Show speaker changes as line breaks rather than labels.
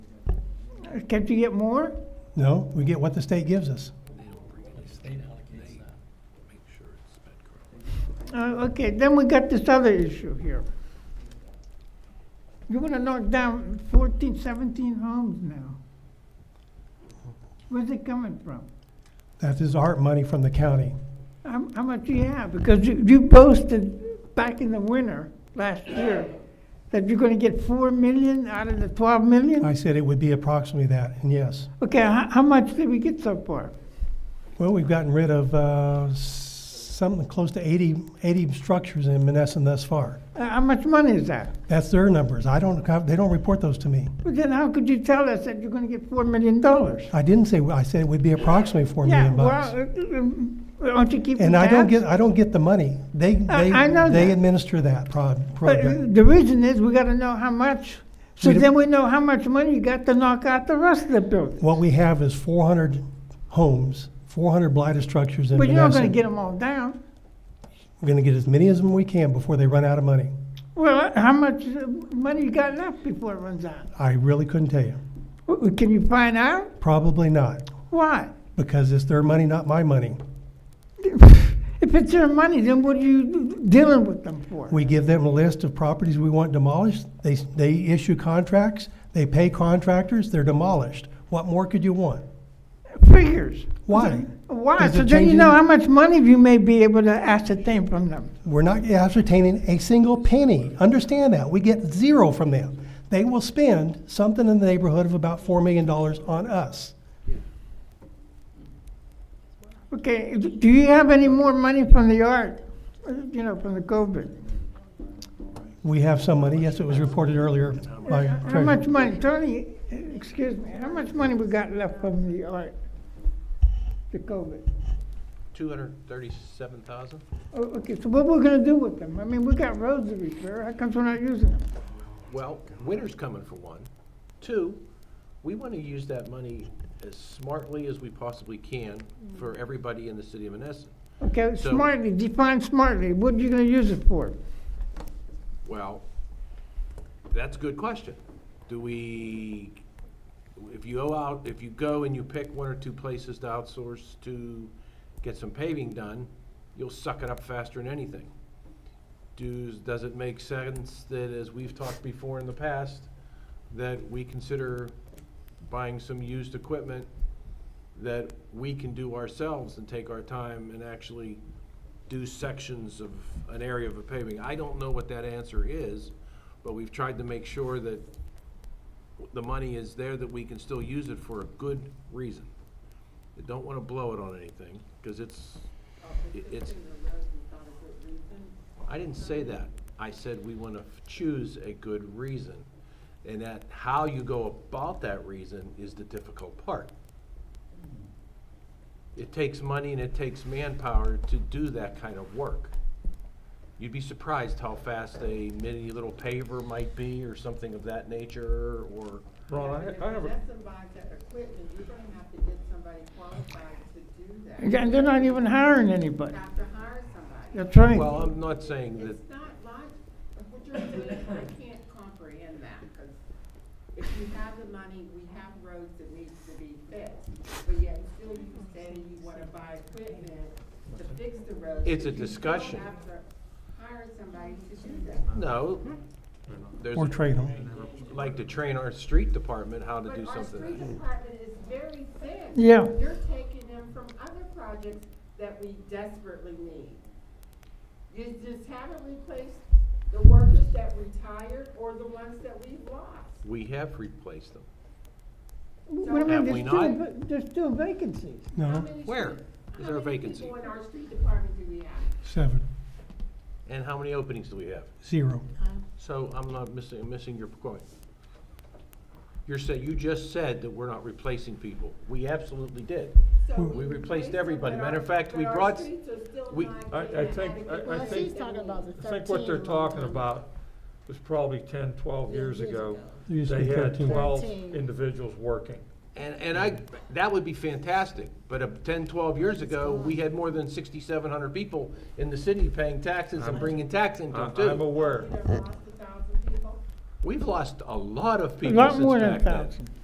Can't you get more?
No, we get what the state gives us.
Uh, okay, then we got this other issue here. You're gonna knock down 14, 17 homes now. Where's it coming from?
That is art money from the county.
How, how much do you have? Because you, you boasted back in the winter last year that you're gonna get four million out of the twelve million?
I said it would be approximately that, and yes.
Okay, how, how much did we get so far?
Well, we've gotten rid of uh, s- something close to 80, 80 structures in Menneson thus far.
Uh, how much money is that?
That's their numbers. I don't, they don't report those to me.
But then how could you tell us that you're gonna get four million dollars?
I didn't say, I said it would be approximately 4
Yeah,
million
well,
bucks.
uh, um, aren't you keeping
And I don't
tabs?
get, I don't get the money. They,
I-
they,
Uh, I know
they
that.
administer that pro-
But uh,
program.
the reason is we gotta know how much, so
We don't-
then we know how much money you got to knock out the rest of the building.
What we have is 400 homes, 400 blighted structures in
But you're not gonna
Menneson.
get them all down.
We're going to get as many as we can before they run out of money.
Well, how much uh, money you got left before it runs out?
I really couldn't tell you.
W- Can you find out?
Probably not,
Why?
because it's their money, not my money.
If it's their money, then what are you dealing with them for?
We give them a list of properties we want demolished. They, they issue contracts, they pay contractors, they're demolished. What more could you want?
Figures.
Why?
Why?
Is
So then you
it changing-
know how much money you may be able to ascertain from them.
We're not ascertaining a single penny. Understand that. We get zero from them. They will spend something in the neighborhood of about $4 million on us.
Okay, do you have any more money from the art, uh, you know, from the COVID?
We have some money. Yes, it was reported earlier by
How much
Treasurer.
money, Tony, uh, excuse me, how much money we got left from the art, the COVID?
Two hundred thirty-seven thousand?
Oh, Okay, so what we're gonna do with them? I mean, we got roads to repair, how comes we're not using them?
Well, winter's coming for one. Two, we want to use that money as smartly as we possibly can for everybody in the city of Menneson.
Okay,
So-
smartly, define smartly, what are you gonna use it for?
Well, that's a good question. Do we, if you go out, if you go and you pick one or two places to outsource to get some paving done, you'll suck it up faster than anything. Does, does it make sense that, as we've talked before in the past, that we consider buying some used equipment that we can do ourselves and take our time and actually do sections of an area of a paving. I don't know what that answer is, but we've tried to make sure that the money is there, that we can still use it for a good reason. They Don't want to blow it on anything, because it's, it- it's. I didn't say that. I said we want to choose a good reason. And that, how you go about that reason is the difficult part it takes money and it takes manpower to do that kind of work. You'd be surprised how fast a mini little paver might be or something of that nature or,
But if you let somebody to equipment, you're gonna have to get somebody qualified to do that.
And they're not even hiring anybody,
You have to hire somebody.
that's right.
well, I'm not saying that,
It's not like, what you're doing, I can't comprehend that, because if you have the money, we have roads that need to be fixed. But yet still you say you wanna buy equipment to fix the roads.
It's a
but you still
discussion.
have to Hire somebody to do that.
no. There's,
Or trade them.
like to train our street department how to do
But our street
something.
department is very thin.
Yeah.
You're taking them from other projects that we desperately need. You just haven't replaced the workers that retired or the ones that we've lost.
We have replaced them.
What do you
Have
mean,
we
there's still,
not?
va- there's still vacancies.
How
No,
many
Where
street-
is our vacancy?
How many people in our street department do we have?
seven,
And how many openings do we have?
zero.
So I'm not missing, missing your point. You're saying, you just said that we're not replacing people. We absolutely did.
So
We replaced
them,
everybody.
but
Matter of
our-
fact, we
but our
brought-
streets are still
we-
not
I- I
getting
think-
adequate
I- I
workers
think-
that we need.
I think what they're talking about was probably 10, 12 years ago.
It used to
They
be
had
13.
12
13.
individuals working.
And, and I, that would be fantastic, but uh, 10, 12 years ago, we had more than 6,700 people in the city paying taxes and bringing tax income
Uh, I- I'm
too.
aware.
We done lost a thousand people.
We've lost a lot of
A
people
lot
since
more than a
back then.
thousand.